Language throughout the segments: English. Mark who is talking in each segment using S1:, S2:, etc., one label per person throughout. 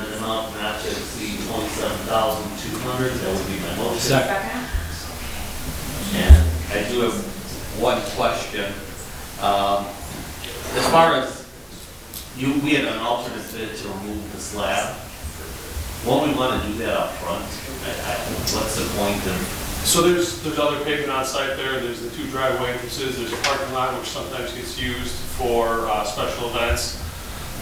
S1: amount not to exceed twenty-seven thousand two hundred, that would be my motion.
S2: Second.
S1: And I do have one question. Um, As far as, you, we had an alternate bid to remove the slab. Won't we want to do that up front? I- I- What's the point of,
S3: So there's, there's other pavement on site there, there's the two driveway entrances, there's a parking lot which sometimes gets used for uh, special events.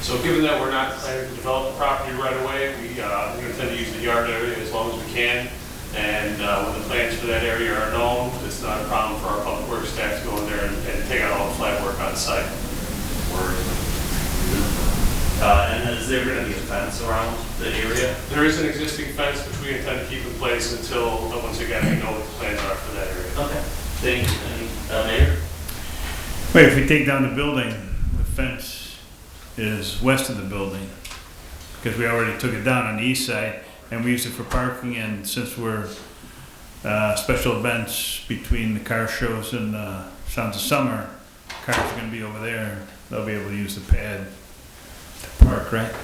S3: So given that we're not planning to develop the property right away, we, uh, we intend to use the yard area as long as we can. And uh, when the plans for that area are known, it's not a problem for our public works staff to go in there and and take out all the flat work on site.
S1: uh, and is there going to be a fence around the area?
S3: There is an existing fence which we intend to keep in place until, uh, once again, we know what the plans are for that area.
S1: Okay. Thank you, Any- uh, Mayor?
S4: Wait, if we take down the building, the fence is west of the building, because we already took it down on the east side, and we used it for parking, and since we're, uh, special events between the car shows and, uh, Sounds of Summer, cars are gonna be over there, they'll be able to use the pad to park, right?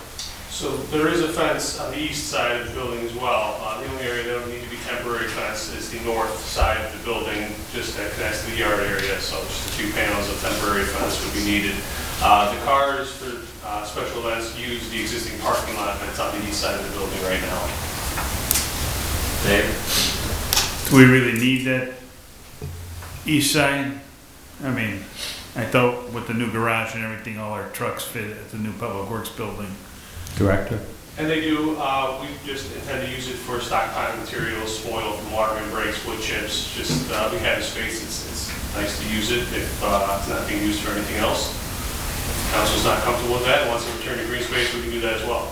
S3: So there is a fence on the east side of the building as well. Uh, The only area that would need to be temporary fence is the north side of the building, just that connects to the yard area, so just a few panels of temporary fence would be needed. Uh, The cars for uh, special events use the existing parking lot that's on the east side of the building right now.
S1: Mayor?
S4: Do we really need that east side? I mean, I thought with the new garage and everything, all our trucks fit at the new public works building.
S5: Director?
S3: And they do, uh, we just intend to use it for stockpile materials, spoil from water and breaks, wood chips, just, uh, we have the space, it's, it's nice to use it if, uh, it's not being used for anything else. If Council's not comfortable with that, wants to return to green space, we can do that as well.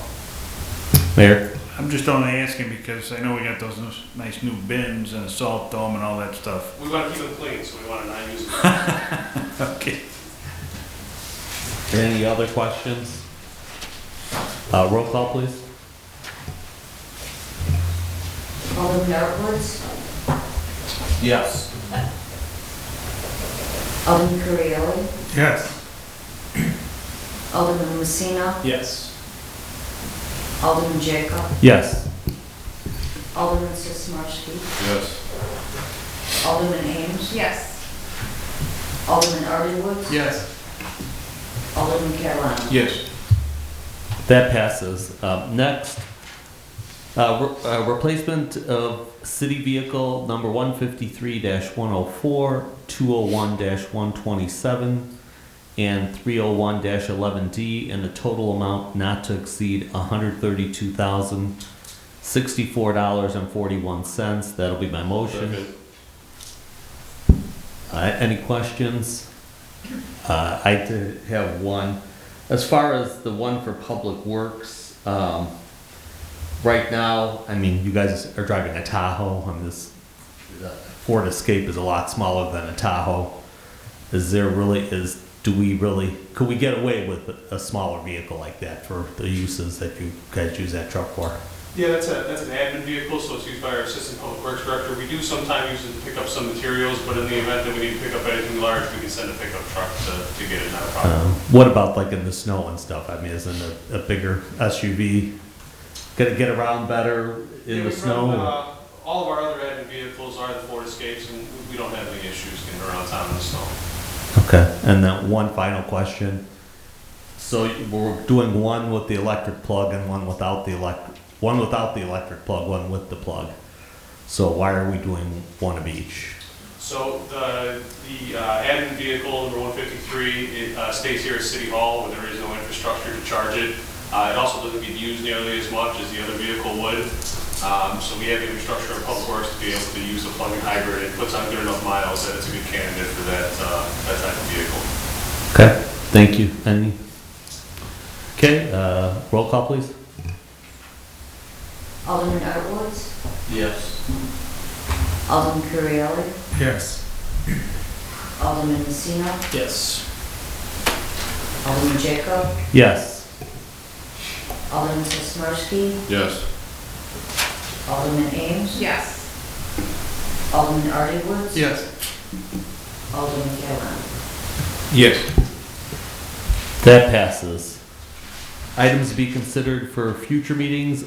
S5: Mayor?
S4: I'm just only asking because I know we got those nice- nice new bins and a salt dome and all that stuff.
S3: We want to keep them clean, so we want to not use it.
S4: Okay.
S5: Any other questions? Uh, roll call, please.
S6: Alderman Edwards,
S1: Yes.
S6: Alderman Currielli,
S4: Yes.
S6: Alderman Messina,
S3: Yes.
S6: Alderman Jacob,
S5: Yes.
S6: Alderman Sismarski,
S3: Yes.
S6: Alderman Ames,
S7: Yes.
S6: Alderman Artiwood,
S3: Yes.
S6: Alderman Catalano.
S3: Yes.
S5: That passes. Um, next, uh, re- uh, replacement of city vehicle number 153-104, 201-127, and 301-11D in a total amount not to exceed $132,064.41. That'll be my motion. Uh, Any questions? Uh, I did have one. As far as the one for Public Works, um, right now, I mean, you guys are driving a Tahoe, and this uh, Ford Escape is a lot smaller than a Tahoe. Is there really, is, do we really, could we get away with a- a smaller vehicle like that for the uses that you guys use that truck for?
S3: Yeah, that's a, that's an admin vehicle, so it's used by our assistant public works director. We do sometimes use it to pick up some materials, but in the event that we need to pick up anything large, we can send a pickup truck to, to get it, not a problem.
S5: Um, what about like in the snow and stuff? I mean, isn't a, a bigger SUV gonna get around better
S3: Yeah,
S5: in the
S3: we
S5: snow?
S3: run, uh, All of our other added vehicles are the Ford Escapes, and we don't have any issues getting around town in the snow.
S5: Okay, and then one final question. So we're doing one with the electric plug and one without the electric, one without the electric plug, one with the plug. So why are we doing one of each?
S3: So the, the uh, admin vehicle, number 153, it uh, stays here at City Hall, where there is no infrastructure to charge it. Uh, It also doesn't get used nearly as much as the other vehicle would. Um, So we have the infrastructure at Public Works to be able to use a plug-in hybrid. It puts on good enough miles that it's a good candidate for that, uh, that type of vehicle.
S5: Okay, thank you. Any? Okay, uh, roll call please.
S6: Alderman Edwards,
S1: Yes.
S6: Alderman Currielli,
S4: Yes.
S6: Alderman Messina,
S2: Yes.
S6: Alderman Jacob,
S5: Yes.
S6: Alderman Sismarski,
S3: Yes.
S6: Alderman Ames,
S7: Yes.
S6: Alderman Artiwood.
S3: Yes.
S6: Alderman Catalano.
S3: Yes.
S5: That passes. Items to be considered for future meetings